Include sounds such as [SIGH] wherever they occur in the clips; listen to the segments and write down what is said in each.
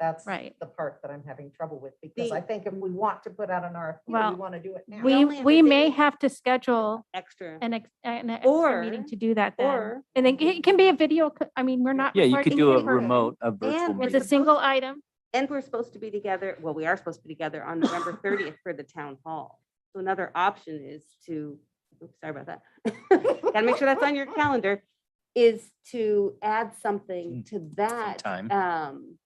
That's Right. the part that I'm having trouble with, because The- I think if we want to put out an RFP, we Well, want to do it now. We, only other we may thing- have to schedule extra. an, ex- an extra meeting Or- to do that then. Or, And then it can be a video, co- I mean, we're not. Yeah, you required could to do a be perfect. remote, a virtual. And It's meeting. a single item. and we're supposed to be together, well, we are supposed to be together on November thirtieth for the town hall. So another option is to, oops, sorry about that. [LAUGHS] Gotta make sure that's on your calendar, is to add something to that. time. Um,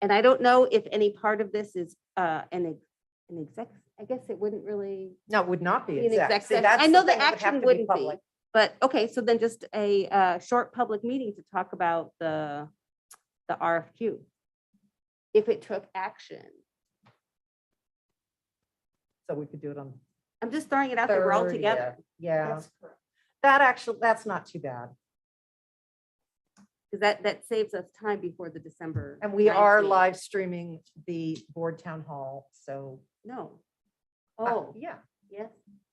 and I don't know if any part of this is, uh, an, ex- an exec, I guess it wouldn't really No, it would not be be an exact. exec See, session. that's I know thing, the it would have action to be wouldn't be, public. but okay, so then just a uh short public meeting to talk about the the RFQ. If it took action. So we could do it on. I'm just throwing it out there. We're all 30th. together. Yeah. That actually, that's not too bad. Because that that saves us time before the December. And we are 19th. live streaming the board town hall, so. No. uh, Oh, Yeah. yes.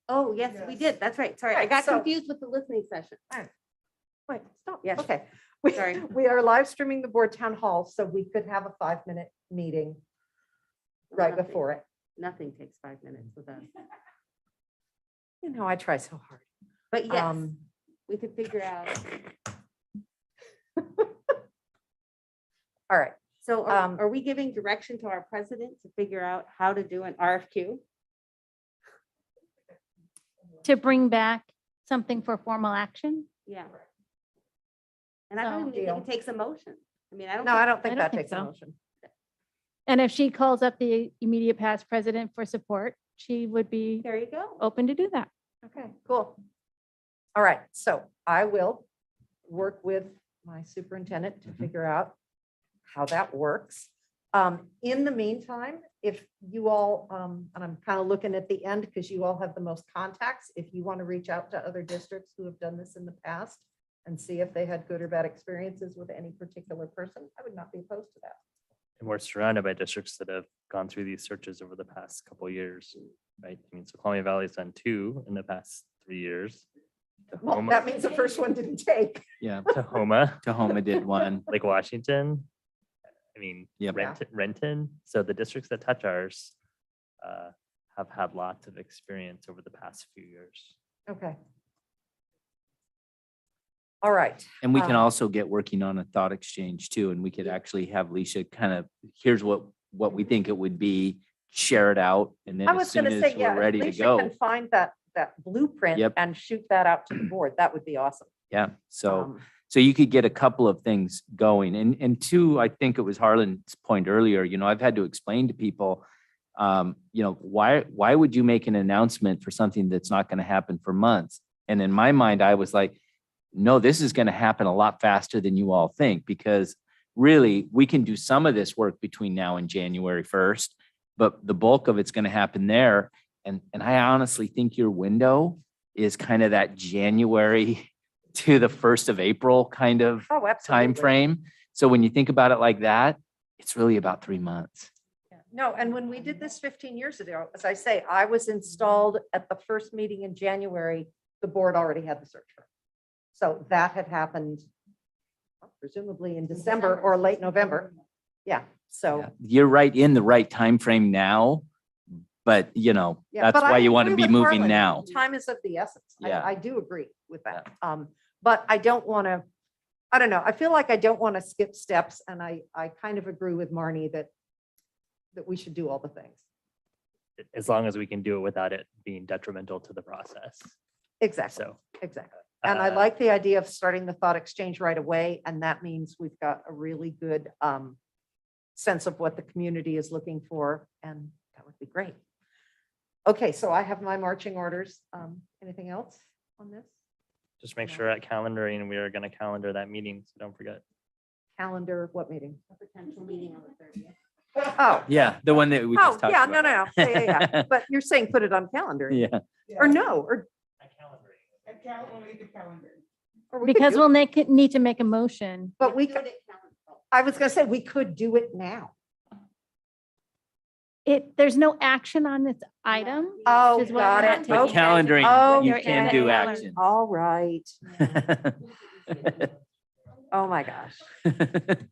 Oh, yes, we did. That's right. Sorry, I Right, got so- confused with the listening session. Wait, stop. Yes. Okay. We- Sorry. We are live streaming the board town hall, so we could have a five-minute meeting right Nothing- before it. Nothing takes five minutes with us. You know, I try so hard. But yes, Um, we could figure out. All right, So Um, are, are we giving direction to our president to figure out how to do an RFQ? to bring back something for formal action. Yeah. And I don't So- even think Deal. it takes a motion. I mean, I don't. no, I don't think I don't that think takes a so. motion. And if she calls up the immediate past president for support, she would be There you Oh. go. open to do that. Okay, cool. All right, so I will work with my superintendent to Mhm. figure out how that works. Um, in the meantime, if you all, um, and I'm kind of looking at the end because you all have the most contacts, if you want to reach out to other districts who have done this in the past and see if they had good or bad experiences with any particular person, I would not be opposed to that. And we're surrounded by districts that have gone through these searches over the past couple years, right? I mean, so Columbia Valley's done two in the past [LAUGHS] three years. Well, Tahoma- that means the first one didn't take. Yeah, Tahoma, Tahoma did one. Lake Washington. I mean, Yep. Yeah. Renton, Renton. So the districts that touch ours uh, have had lots of experience over the past few years. Okay. All right. And we can Um, also get working on a thought exchange too, and we could actually have Leisha kind of, here's what, what we think it would be, share it out, and then I as was soon gonna as say, yeah. we're if ready to Lisa go. can Find that, that blueprint Yep. and shoot that out [CLEARS THROAT] to the board. That would be awesome. Yeah, so. Um, So you could get a couple of things going. And, and two, I think it was Harlan's point earlier, you know, I've had to explain to people, um, you know, why, why would you make an announcement for something that's not going to happen for months? And in my mind, I was like, no, this is going to happen a lot faster than you all think because really we can do some of this work between now and January 1st, but the bulk of it's going to happen there. And, and I honestly think your window is kind of that January [LAUGHS] to the 1st of April kind of Oh, absolutely. time frame. So when you think about it like that, it's really about three months. No, and when we did this fifteen years ago, as I say, I was installed at the first meeting in January. The board already had the search firm. So that had happened presumably in December or late November. Yeah, so. Yeah, You're right in the right time frame now, but you know, Yeah, that's but I why you want to agree be with moving Harlan. now. Time is of the essence. I, Yeah. I do agree with that. Um, but I don't want to, I don't know, I feel like I don't want to skip steps and I, I kind of agree with Marnie that, that we should do all the things. As long as we can do it without it being detrimental to the process. Exactly, So. exactly. And I uh, like the idea of starting the thought exchange right away. And that means we've got a really good, um, sense of what the community is looking for and that would be great. Okay, so I have my marching orders. Um, anything else on this? Just make Yeah. sure at calendaring, we are going to calendar that meeting. So don't forget. Calendar, what meeting? A potential meeting on the thirtieth. Oh, Yeah, the one that we oh, just talked yeah, no, no, about. no. Yeah, yeah, [LAUGHS] yeah. But you're saying put it on calendar Yeah, or no, or. or we could Because do it- we'll make, it- need to make a motion. But we could, I was gonna say, we could do it now. It, there's no action on this item. Oh, Which is why got we're not it. taking but Okay. action. Oh, calendaring, you yeah, can yeah, do yeah. action. [LAUGHS] All right. Oh, my gosh.